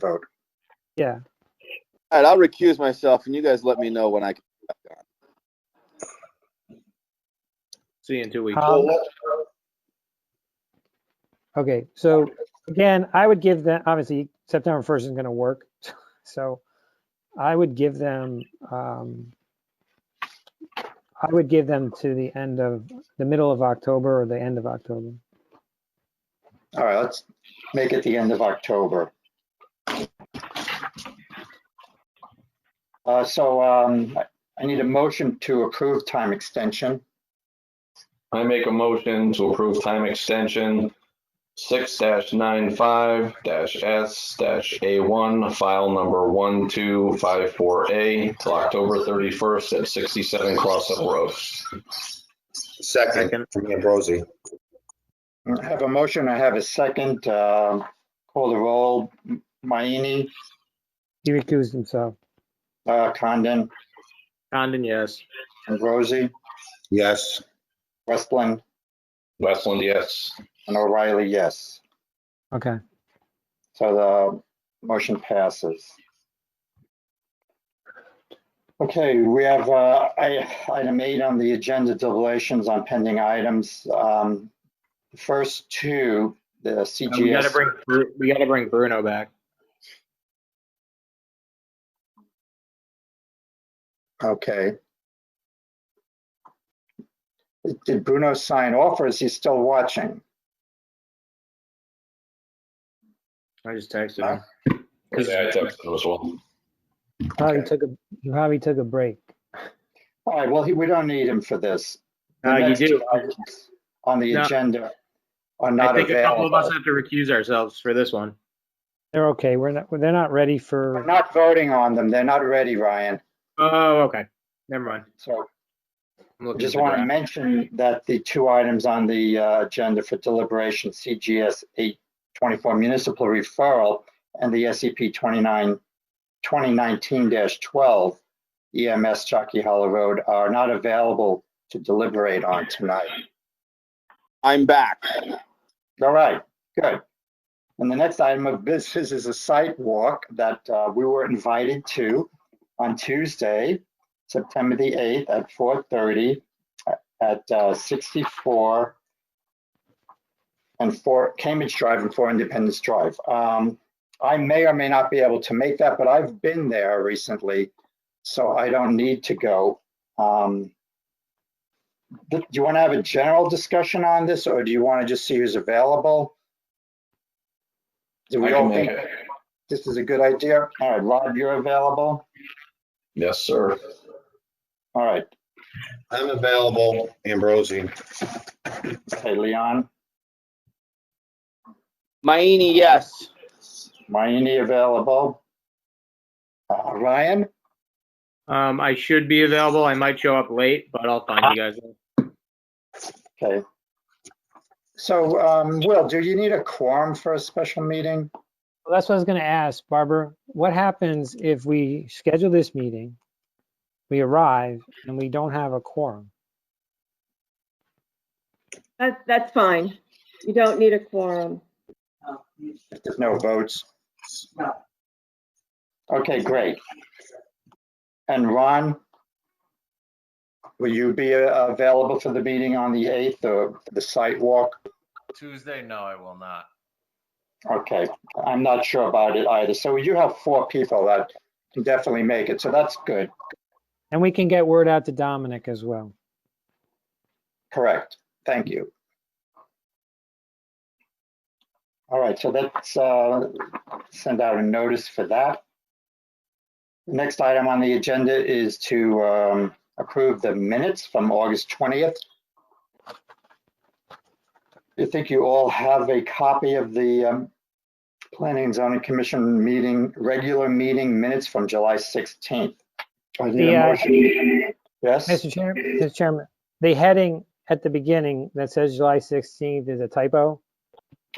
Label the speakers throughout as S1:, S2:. S1: vote.
S2: Yeah.
S3: All right, I'll recuse myself, and you guys let me know when I can.
S4: See you in two weeks.
S2: Um, Okay, so again, I would give them, obviously, September 1st isn't going to work. So I would give them, um, I would give them to the end of, the middle of October or the end of October.
S1: All right, let's make it the end of October. Uh, So um, I- I need a motion to approve time extension.
S5: I make a motion to approve time extension six dash nine five dash S dash A one, file number one two five four A, till October thirty-first at sixty-seven Crossup Road.
S4: Second.
S6: Second, from Ambrosi.
S1: I have a motion, I have a second. um, Call the roll. M- Mayini,
S2: He recused himself.
S1: uh, Condon,
S4: Condon, yes.
S1: Ambrosi,
S6: Yes,
S1: Westland,
S5: Westland, yes.
S1: and O'Reilly, yes.
S2: Okay,
S1: So the motion passes. Okay, we have uh, I- item eight on the agenda, deliberations on pending items. Um, the First two,
S4: Um,
S1: the
S4: We gotta
S1: CGS,
S4: bring, Bru- we gotta bring Bruno back.
S1: okay. Did Bruno sign off or is he still watching?
S4: I just texted him.
S5: Yeah, I texted him as well.
S2: probably
S1: Okay.
S2: took a, he probably took a break.
S1: All right, well, he- we don't need him for this. The
S4: Uh, you
S1: next
S4: do.
S1: two items On the
S4: No.
S1: agenda are
S4: I
S1: not
S4: think a couple of us
S1: available.
S4: have to recuse ourselves for this one.
S2: They're okay, we're not, they're not ready
S1: We're
S2: for,
S1: not voting on them. They're not ready, Ryan.
S4: Oh, okay. Never mind.
S1: So
S4: I'm looking
S1: Just
S4: at the
S1: want to
S4: draft.
S1: mention that the two items on the uh, agenda for deliberation, CGS 824 municipal referral and the E SCP 29 2019-12 EMS E Jockey Hollow Road are not available to deliberate on tonight.
S3: I'm back.
S1: All right, good. And the next item of business is a site walk that uh, we were invited to on Tuesday, September the 8th at 4:30 at uh, 64 and 4 Cambridge Drive and 4 Independence Drive. Um, I may or may not be able to make that, but I've been there recently, so I don't need to go. Um, do you want to have a general discussion on this, or do you want to just see who's available? Do
S5: I
S1: we
S5: can
S1: all
S5: make
S1: think
S5: it.
S1: this is a good idea? All right, Rob, you're available?
S5: Yes, sir.
S1: All right,
S6: I'm available, Ambrosi.
S1: okay, Leon,
S3: Mayini, yes.
S1: Mayini available? Uh, Ryan,
S4: Um, I should be available. I might show up late, but I'll find you guys.
S1: okay. So, um, Will, do you need a quorum for a special meeting?
S2: Well, that's what I was gonna ask, Barbara, what happens if we schedule this meeting? We arrive and we don't have a quorum?
S7: That, that's fine. You don't need a quorum.
S1: If there's no votes? Okay, great. And Ron, will you be uh, available for the meeting on the 8th or the site walk?
S8: Tuesday, no, I will not.
S1: Okay, I'm not sure about it either. So you have four people that can definitely make it, so that's good,
S2: And we can get word out to Dominic as well.
S1: correct. Thank you. All right, so let's uh, send out a notice for that. Next item on the agenda is to um, approve the minutes from August 20th. I think you all have a copy of the um, Planning and Zoning Commission meeting, regular meeting minutes from July 16th. I need a
S2: The, uh,
S1: motion. Yes,
S2: Mr. Chair, Mr. Chairman, the heading at the beginning that says July 16th is a typo.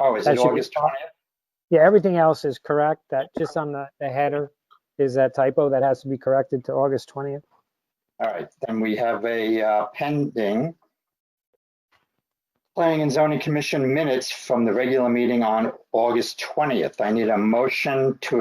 S1: oh, is
S2: that
S1: it
S2: should be-
S1: August 20th?
S2: Yeah, everything else is correct. That just on the, the header is that typo that has to be corrected to August 20th.
S1: All right, then we have a uh, pending Planning and Zoning Commission minutes from the regular meeting on August 20th. I need a motion to